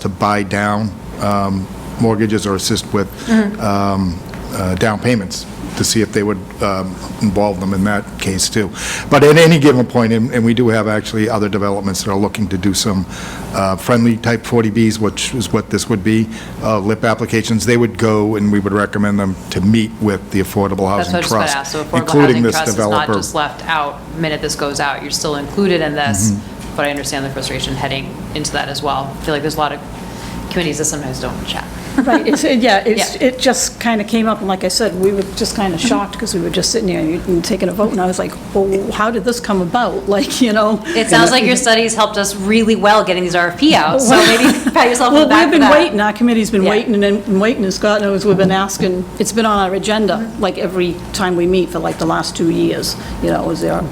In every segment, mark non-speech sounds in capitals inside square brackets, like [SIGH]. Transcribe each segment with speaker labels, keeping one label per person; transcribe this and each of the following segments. Speaker 1: to buy down um, mortgages or assist with
Speaker 2: Mm-hmm.
Speaker 1: um, uh, down payments, to see if they would um, involve them in that case, too. But at any given point, and and we do have actually other developments that are looking to do some uh, friendly type 40Bs, which is what this would be, uh, LIP applications, they would go, and we would recommend them to meet with the Affordable
Speaker 2: That's
Speaker 1: Housing
Speaker 2: what I just got to ask.
Speaker 1: Trust,
Speaker 2: So affordable
Speaker 1: including
Speaker 2: housing
Speaker 1: this
Speaker 2: trust is not
Speaker 1: developer.
Speaker 2: just left out, the minute this goes out, you're still included in this,
Speaker 1: Mm-hmm.
Speaker 2: but I understand the frustration heading into that as well. I feel like there's a lot of committees that sometimes don't chat.
Speaker 3: Right, it's, it- yeah, it's,
Speaker 2: Yeah. Mm-hmm.
Speaker 3: it just kind of came up, and like I said, we were just kind of shocked, because we were just sitting here and taking a vote, and I was like, well, how did this come about? [LAUGHS] Like, you know?
Speaker 2: It sounds like your studies helped us really well getting these RFP out, so
Speaker 1: [LAUGHS]
Speaker 2: maybe pat yourself on the
Speaker 3: Well,
Speaker 2: back
Speaker 3: we've
Speaker 2: for
Speaker 3: been
Speaker 2: that.
Speaker 3: waiting, our committee's been
Speaker 2: Yeah. Mm-hmm.
Speaker 3: waiting and- and waiting, and Scott knows, we've been asking, it's been on our agenda, like every time we meet for like the last two years, you know, is there,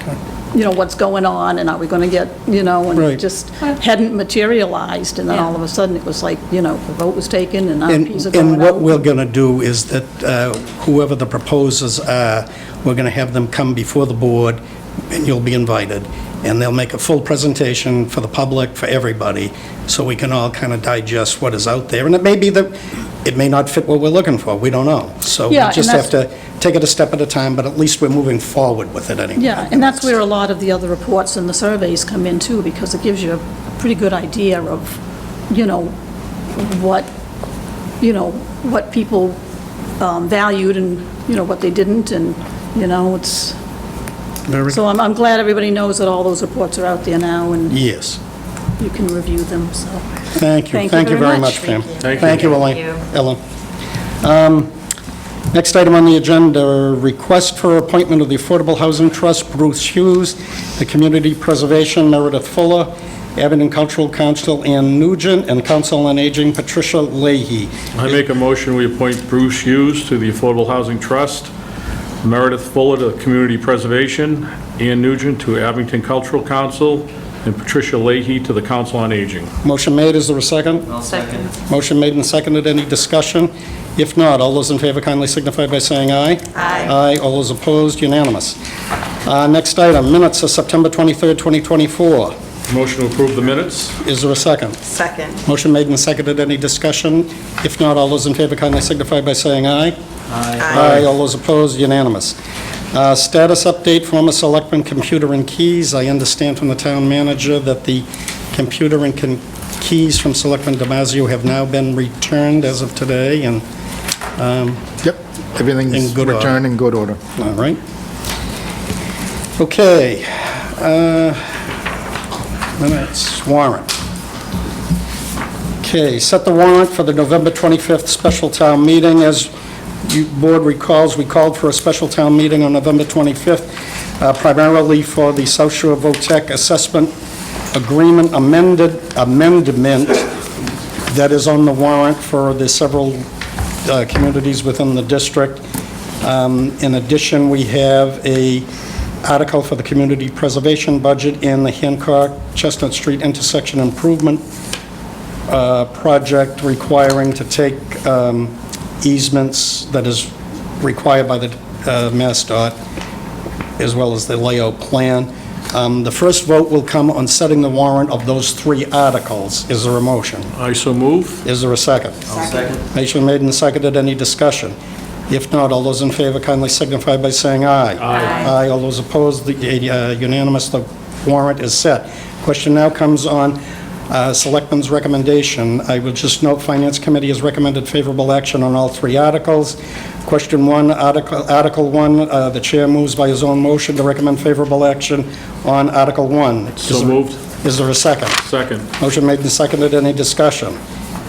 Speaker 3: you know, what's going on, and are we going to get, you know, and it
Speaker 4: Right.
Speaker 3: just hadn't materialized, and then
Speaker 2: Yeah.
Speaker 3: all of a sudden, it was like, you know, the vote was taken, and
Speaker 4: And
Speaker 3: RFPs are going out.
Speaker 4: and what we're going to do is that uh, whoever the proposers are, we're going to have them come before the board, and you'll be invited. And they'll make a full presentation for the public, for everybody, so we can all kind of digest what is out there. And it may be that, it may not fit what we're looking for, we don't know. So we
Speaker 3: Yeah, and
Speaker 4: just have
Speaker 3: that's-
Speaker 4: to take it a step at a time, but at least we're moving forward with it anyway.
Speaker 3: Yeah, and that's where a lot of the other reports and the surveys come in too, because it gives you a pretty good idea of, you know, what, you know, what people um, valued and, you know, what they didn't, and, you know, it's,
Speaker 4: Very-
Speaker 3: so I'm, I'm glad everybody knows that all those reports are out there now, and
Speaker 4: Yes.
Speaker 3: you can review them, so.
Speaker 4: Thank you. Thank you very much, Pam.
Speaker 5: Thank you.
Speaker 4: Thank you, Elaine-
Speaker 2: Thank
Speaker 4: Ellen. Um, Next item on the agenda, request for appointment of the Affordable Housing Trust, Bruce Hughes, the Community Preservation, Meredith Fuller, Abington Cultural Council, Ann Nugent, and Council on Aging, Patricia Leahy.
Speaker 5: I make a motion, we appoint Bruce Hughes to the Affordable Housing Trust, Meredith Fuller to Community Preservation, Ann Nugent to Abington Cultural Council, and Patricia Leahy to the Council on Aging.
Speaker 4: Motion made, is there a second?
Speaker 2: Second.
Speaker 4: Motion made and seconded, any discussion? If not, all those in favor kindly signify by saying aye. Aye. Aye, all those opposed, unanimous. Uh, Next item, minutes of September 23rd, 2024.
Speaker 5: Motion to approve the minutes?
Speaker 4: Is there a second?
Speaker 6: Second.
Speaker 4: Motion made and seconded, any discussion? If not, all those in favor kindly signify by saying aye. Aye. all those opposed, unanimous. Uh, Status update, former selectman computer and keys. I understand from the town manager that the computer and con- keys from Selectman Damasio have now been returned as of today, and,
Speaker 1: Yep,
Speaker 4: In
Speaker 1: everything's
Speaker 4: good order.
Speaker 1: returned in good order.
Speaker 4: all right. Okay. uh, Minutes, warrant. Okay, set the warrant for the November 25th special town meeting. As you board recalls, we called for a special town meeting on November 25th, uh, primarily for the South Shore VOTEC assessment agreement amended, amendment that is on the warrant for the several uh, communities within the district. Um, In addition, we have a article for the community preservation budget and the Hancock Chestnut Street intersection improvement uh, project requiring to take um, easements that is required by the uh, MassDOT, as well as the layout plan. Um, The first vote will come on setting the warrant of those three articles. Is there a motion?
Speaker 5: I so move.
Speaker 4: Is there a 2nd second. Motion made and seconded, any discussion? If not, all those in favor kindly signify by saying aye. Aye. all those opposed, the uh, unanimous, the warrant is set. Question now comes on uh, Selectmen's recommendation. I would just note, Finance Committee has recommended favorable action on all three articles. Question one, Article Article one, uh, the Chair moves by his own motion to recommend favorable action on Article one. Is
Speaker 5: So
Speaker 4: there-
Speaker 5: moved.
Speaker 4: Is there a second?
Speaker 5: Second.
Speaker 4: Motion made and seconded. Any discussion?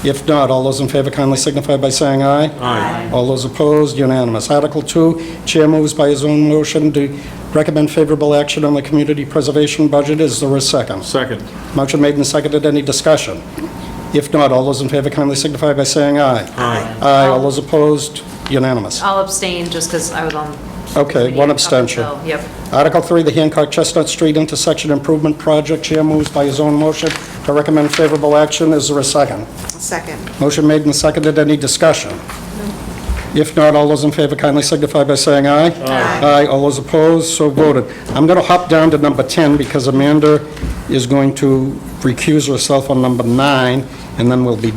Speaker 4: If not, all those in favor kindly signify by saying aye.
Speaker 5: Aye.
Speaker 4: All those opposed, unanimous. Article 2, Chair moves by his own motion to recommend favorable action on the community preservation budget. Is there a second?
Speaker 5: Second.
Speaker 4: Motion made and seconded. Any discussion? If not, all those in favor kindly signify by saying aye. Aye. Aye. All those opposed, unanimous.
Speaker 2: I'll abstain just because I was on.
Speaker 4: Okay,
Speaker 2: committee up
Speaker 4: one abstention.
Speaker 2: until- Yep.
Speaker 4: Article 3, the Hancock Chestnut Street Intersection Improvement Project. Chair moves by his own motion to recommend favorable action. Is there a second?
Speaker 6: Second.
Speaker 4: Motion made and seconded. Any discussion? If not, all those in favor kindly signify by saying aye. Aye. All those opposed, so voted. I'm going to hop down to number 10 because Amanda is going to recuse herself on number nine, and then we'll be